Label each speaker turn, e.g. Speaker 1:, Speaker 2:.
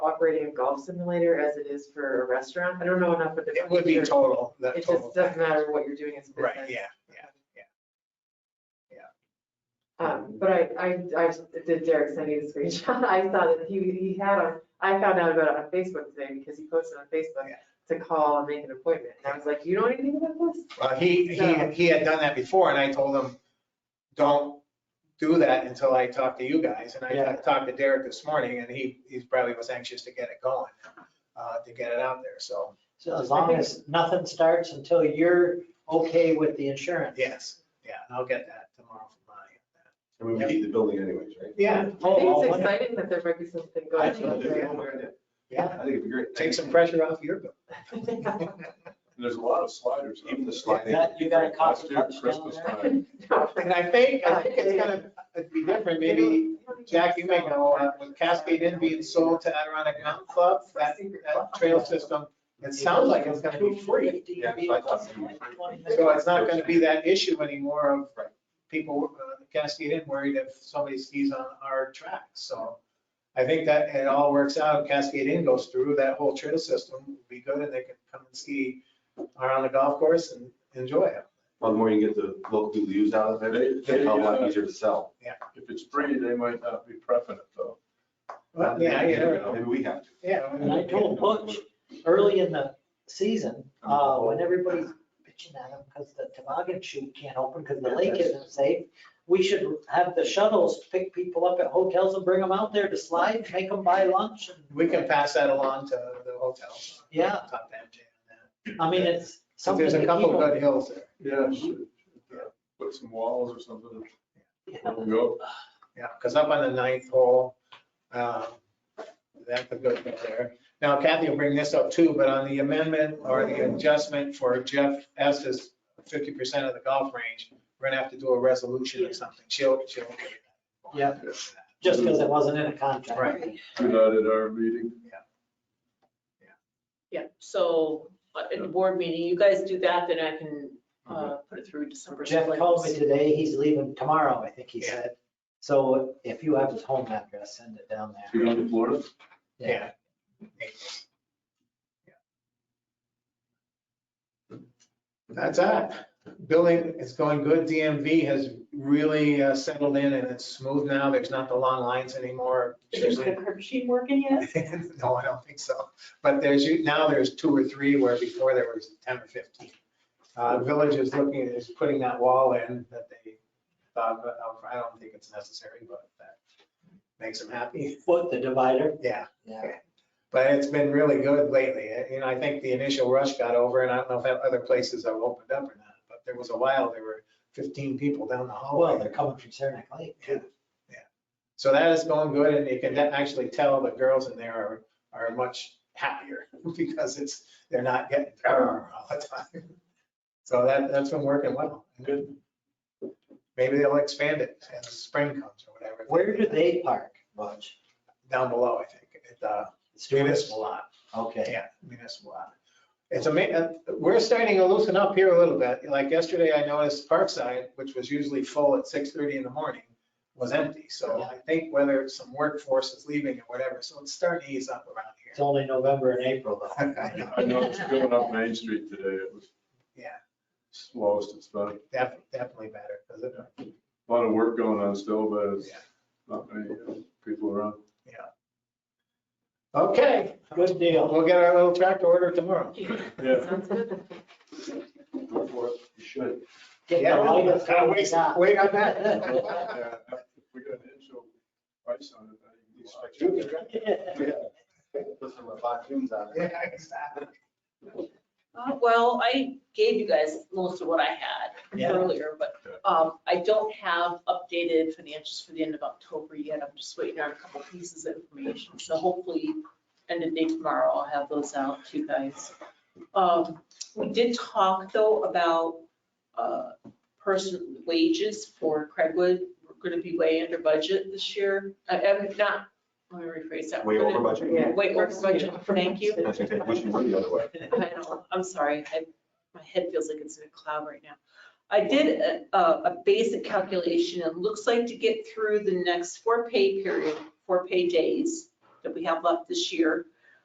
Speaker 1: operating a golf simulator as it is for a restaurant? I don't know enough of the.
Speaker 2: It would be
Speaker 1: computer.
Speaker 2: total, that
Speaker 1: It
Speaker 2: total.
Speaker 1: just doesn't
Speaker 2: package.
Speaker 1: matter what you're doing as a business.
Speaker 2: Right, yeah, yeah.
Speaker 1: Um, but I, I, I did Derek send you the screenshot. I saw that he, he had a, I found out about it on Facebook today because he posted on Facebook
Speaker 2: Yeah.
Speaker 1: to call and make an appointment. And I was like, you know anything about this?
Speaker 2: Well, he,
Speaker 1: So-
Speaker 2: he, he had done that before and I told him, don't do that until I talk to you guys. And I
Speaker 3: Yeah.
Speaker 2: talked to Derek this morning and he, he probably was anxious to get it going, uh, to get it out there. So,
Speaker 3: So as long as nothing starts until you're okay with the insurance.
Speaker 2: yes, yeah, I'll get that tomorrow from Bonnie.
Speaker 4: I mean, we heat the building anyways, right?
Speaker 2: Yeah,
Speaker 1: I think
Speaker 3: Oh,
Speaker 1: it's
Speaker 3: wonderful.
Speaker 1: exciting that there might be something
Speaker 4: I
Speaker 1: going
Speaker 4: think it'd
Speaker 1: on
Speaker 4: be
Speaker 1: there.
Speaker 4: great. I
Speaker 3: Yeah,
Speaker 4: think it'd be great.
Speaker 2: take some pressure off your bill.
Speaker 4: And there's a lot of sliders, even the sliding.
Speaker 3: That- you got a
Speaker 4: Last year,
Speaker 3: cocktail
Speaker 4: Christmas
Speaker 3: down
Speaker 4: time.
Speaker 1: No,
Speaker 2: And I think, I think it's gonna be different, maybe Jack, you may know, uh, with Cascade Inn being sold to Adirondack Mountain Club, that, that trail system, it sounds like it's gonna be free.
Speaker 4: Yeah, so I thought it'd be free.
Speaker 2: So it's not gonna be that issue anymore of
Speaker 4: Right.
Speaker 2: people, uh, Cascade Inn worried if somebody skis on our tracks, so. I think that it all works out, Cascade Inn goes through, that whole trail system will be good, and they can come and ski around the golf course and enjoy it.
Speaker 4: Well, the more you get the local people to use out of it,
Speaker 5: They-
Speaker 4: it's a hell of a lot easier to sell.
Speaker 5: If it's free, they might not be prepping it though.
Speaker 2: But, yeah, you never know.
Speaker 4: Maybe we have to.
Speaker 2: yeah.
Speaker 3: And I told Butch early in the season,
Speaker 2: Oh.
Speaker 3: uh, when everybody's bitching at him because the toboggan chute can't open because the lake isn't safe, we should have the shuttles pick people up at hotels and bring them out there to slide, make them buy lunch. and-
Speaker 2: We can pass that along to the hotel.
Speaker 3: Yeah.
Speaker 2: Talk to MJ on that.
Speaker 3: I mean, it's
Speaker 2: So
Speaker 3: something
Speaker 2: There's
Speaker 3: to
Speaker 2: a
Speaker 3: keep
Speaker 2: couple
Speaker 3: them.
Speaker 2: good hills there.
Speaker 5: Yeah. uh, Put some walls or something.
Speaker 3: Yeah.
Speaker 5: There we go.
Speaker 2: Yeah, because up on the ninth hole, um, that's a good one there. Now Kathy will bring this up too, but on the amendment or the adjustment for Jeff S's fifty percent of the golf range, we're gonna have to do a resolution or something. She'll, she'll.
Speaker 3: Yeah. Just because it wasn't in a contract.
Speaker 2: Right.
Speaker 5: Do that at our meeting.
Speaker 6: Yeah, so uh, at the board meeting, you guys do that, then I can
Speaker 2: Mm-hmm.
Speaker 6: uh, put it through December.
Speaker 3: Jeff called me
Speaker 6: 6th.
Speaker 3: today, he's leaving tomorrow, I think he
Speaker 2: Yeah.
Speaker 3: said. So if you have his home address, send it down
Speaker 4: So
Speaker 3: there.
Speaker 4: you're going to Florida?
Speaker 2: Yeah. That's that. Billing is going good. DMV has really uh, settled in and it's smooth now. There's not the long lines anymore.
Speaker 6: Is the curb sheet working yet?
Speaker 2: No, I don't think so. But there's, you- now there's two or three where before there was 10 or 15. Uh, Village is looking, is putting that wall in that they thought, but um, I don't think it's necessary, but that makes them happy.
Speaker 3: Foot, the divider.
Speaker 2: Yeah.
Speaker 3: Yeah.
Speaker 2: But it's been really good lately. Uh, You know, I think the initial rush got over and I don't know if that other places have opened up or not, but there was a while, there were 15 people down the
Speaker 3: Oh, Well,
Speaker 2: hallway.
Speaker 3: they're coming from Saranac Lake.
Speaker 2: Yeah, yeah. So that is going good and you can de- actually tell the girls in there are, are much happier because it's, they're not getting "Arr" all the time. So that, that's been working well. Good. Maybe they'll expand it as spring comes or whatever.
Speaker 3: Where do they park, Butch?
Speaker 2: Down below, I think, at the municipal lot.
Speaker 3: Okay.
Speaker 2: Yeah, municipal lot. It's amazing, we're starting to loosen up here a little bit. Like yesterday, I noticed Parkside, which was usually full at 6:30 in the morning, was empty. So I think whether it's some workforce is leaving or whatever, so it's starting to ease up around
Speaker 3: It's only November and April though.
Speaker 2: here.
Speaker 5: I know it's going up Main Street today. It was
Speaker 2: Yeah.
Speaker 5: slowest it's been.
Speaker 2: Def- Definitely better, because it
Speaker 5: A lot of work going on still, but it's
Speaker 2: Yeah.
Speaker 5: not many uh, people around.
Speaker 2: Okay,
Speaker 3: Good deal.
Speaker 2: we'll get our little tractor order tomorrow.
Speaker 5: Yeah.
Speaker 1: Sounds good.
Speaker 4: Go for it. You should.
Speaker 3: Get
Speaker 2: Yeah,
Speaker 3: the lightest
Speaker 2: gotta
Speaker 3: one you
Speaker 2: Wait
Speaker 3: got.
Speaker 2: wait on that.
Speaker 5: Yeah, if We got an inch of ice on it. I think it's like-
Speaker 4: Put some raccoons on
Speaker 2: Yeah, exactly.
Speaker 6: Uh, Well, I gave you guys most of what I had
Speaker 3: Yeah.
Speaker 6: earlier, but um, I don't have updated financials for the end of October yet. I'm just waiting on a couple pieces of information. So hopefully, end of day tomorrow, I'll have those out to you guys. Um, We did talk though about uh, person wages for Craigwood. We're going to be way under budget this year. I am not, let me rephrase that.
Speaker 4: Way
Speaker 6: We're
Speaker 4: over
Speaker 6: gonna-
Speaker 4: budget.
Speaker 1: Yeah.
Speaker 6: Way over budget. Thank you.
Speaker 4: I was gonna say, we should go the other way.
Speaker 6: I know, I'm sorry, I, my head feels like it's in a cloud right now. I did a, a a basic calculation, it looks like to get through the next four pay period, four pay days, that we have left this year.